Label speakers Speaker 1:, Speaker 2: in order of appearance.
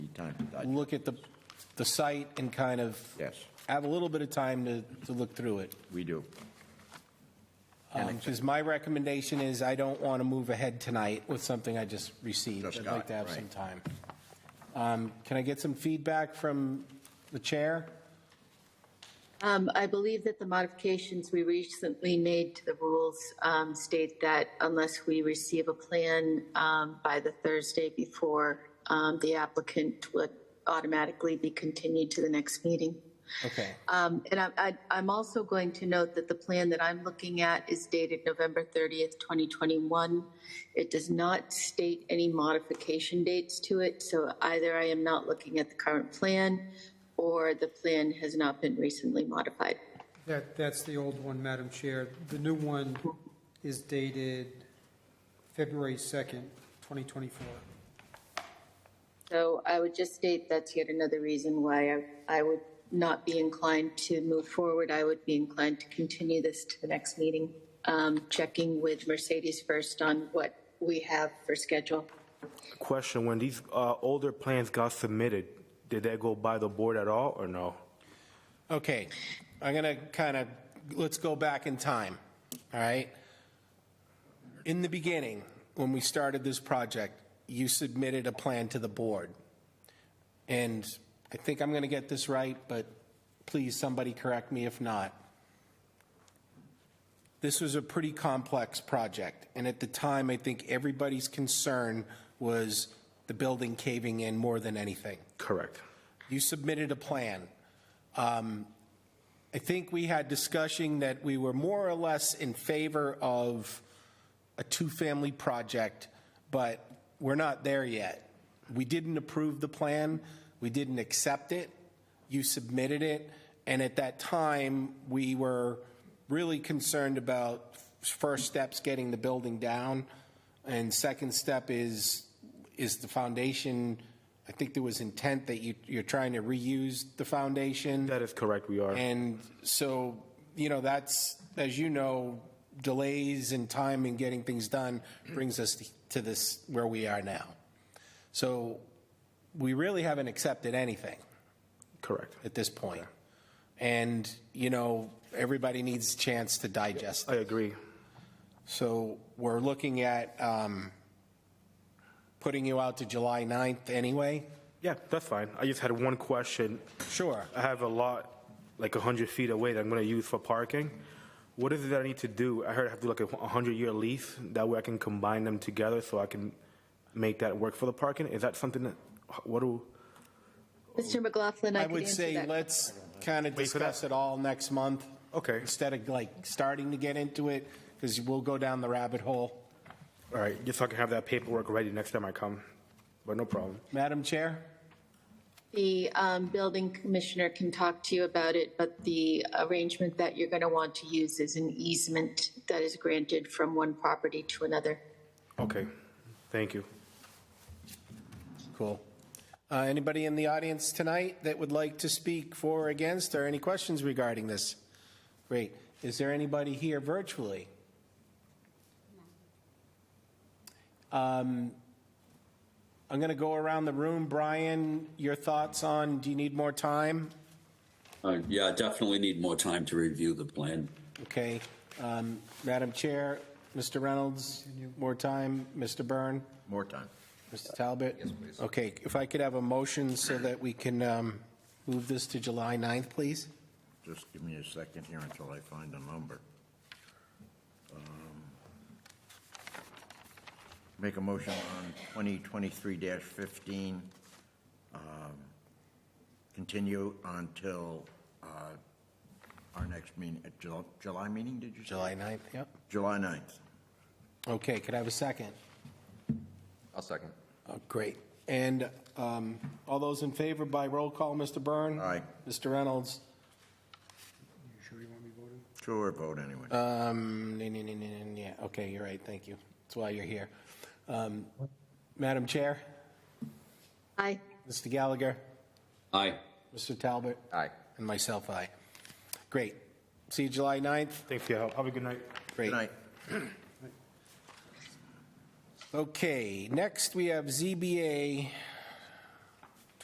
Speaker 1: time. I-
Speaker 2: look at the, the site and kind of
Speaker 1: Yes.
Speaker 2: have a little bit of time to, to look through it.
Speaker 1: We do.
Speaker 2: Because my recommendation is I don't want to move ahead tonight with something I just received.
Speaker 1: Just
Speaker 2: I'd
Speaker 1: got
Speaker 2: like
Speaker 1: it,
Speaker 2: to have
Speaker 1: right.
Speaker 2: some time. Um, Can I get some feedback from the chair?
Speaker 3: Um, I believe that the modifications we recently made to the rules um, state that unless we receive a plan um, by the Thursday before, um, the applicant would automatically be continued to the next meeting.
Speaker 2: Okay,
Speaker 3: Um, And I- I- I'm also going to note that the plan that I'm looking at is dated November 30th, 2021. It does not state any modification dates to it, so either I am not looking at the current plan or the plan has not been recently modified.
Speaker 4: That, that's the old one, Madam Chair. The new one is dated February 2nd, 2024.
Speaker 3: So I would just state that's yet another reason why I- I would not be inclined to move forward. I would be inclined to continue this to the next meeting, um, checking with Mercedes first on what we have for schedule.
Speaker 5: Question, when these uh, older plans got submitted, did that go by the board at all or no?
Speaker 2: okay. I'm going to kind of, let's go back in time, all right? In the beginning, when we started this project, you submitted a plan to the board. And I think I'm going to get this right, but please, somebody correct me if not. This was a pretty complex project, and at the time, I think everybody's concern was the building caving in more than anything.
Speaker 5: Correct.
Speaker 2: You submitted a plan. Um, I think we had discussion that we were more or less in favor of a two-family project, but we're not there yet. We didn't approve the plan, we didn't accept it, you submitted it, and at that time, we were really concerned about first steps, getting the building down, and second step is, is the foundation, I think there was intent that you, you're trying to reuse the foundation.
Speaker 5: That is correct, we are.
Speaker 2: And so, you know, that's, as you know, delays and time in getting things done brings us to this, where we are now. So we really haven't accepted anything
Speaker 5: Correct.
Speaker 2: at this point. And, you know, everybody needs a chance to digest
Speaker 5: I
Speaker 2: it.
Speaker 5: agree.
Speaker 2: So we're looking at um, putting you out to July 9th anyway?
Speaker 5: Yeah, that's fine. I just had one question.
Speaker 2: Sure.
Speaker 5: I have a lot, like 100 feet away that I'm going to use for parking. What is it that I need to do? I heard I have to do like a 100-year lease, that way I can combine them together so I can make that work for the parking? Is that something that, what do,
Speaker 3: Mr. McLaughlin, I
Speaker 2: I
Speaker 3: could
Speaker 2: would
Speaker 3: answer
Speaker 2: say
Speaker 3: that.
Speaker 2: let's kind of
Speaker 5: Wait for that.
Speaker 2: discuss it all next month.
Speaker 5: Okay.
Speaker 2: Instead of like starting to get into it, because we'll go down the rabbit hole.
Speaker 5: all right, just so I can have that paperwork ready next time I come, but no problem.
Speaker 2: Madam Chair?
Speaker 3: The um, building commissioner can talk to you about it, but the arrangement that you're going to want to use is an easement that is granted from one property to another.
Speaker 5: Okay, thank you.
Speaker 2: Cool. Uh, Anybody in the audience tonight that would like to speak for or against or any questions regarding this? Great. Is there anybody here virtually? Um, I'm going to go around the room. Brian, your thoughts on, do you need more time?
Speaker 6: Uh, Yeah, I definitely need more time to review the plan.
Speaker 2: Okay. Um, Madam Chair, Mr. Reynolds, more time. Mr. Byrne,
Speaker 1: More time.
Speaker 2: Mr. Talbot? Yes, please. Okay, if I could have a motion so that we can um, move this to July 9th, please?
Speaker 1: Just give me a second here until I find a number. Um, Make a motion on 2023-15, um, continue until uh, our next meeting, uh, July meeting, did you say?
Speaker 2: July 9th, yep.
Speaker 1: July 9th.
Speaker 2: Okay, could I have a second?
Speaker 7: I'll second.
Speaker 2: Oh, Great. And um, all those in favor by roll call, Mr. Byrne?
Speaker 1: Aye.
Speaker 2: Mr. Reynolds?
Speaker 4: You sure you want me voting?
Speaker 1: Sure vote anyway.
Speaker 2: Um, nee, nee, nee, nee, nee, yeah, okay, you're right, thank you. That's why you're here. Um, Madam Chair,
Speaker 3: Aye.
Speaker 2: Mr. Gallagher,
Speaker 6: Aye.
Speaker 2: Mr. Talbot?
Speaker 7: Aye.
Speaker 2: And myself, aye. Great. See you July 9th?
Speaker 5: Thanks for your help. Have a good night.
Speaker 2: Great.
Speaker 1: Good night.
Speaker 2: Okay, next we have ZBA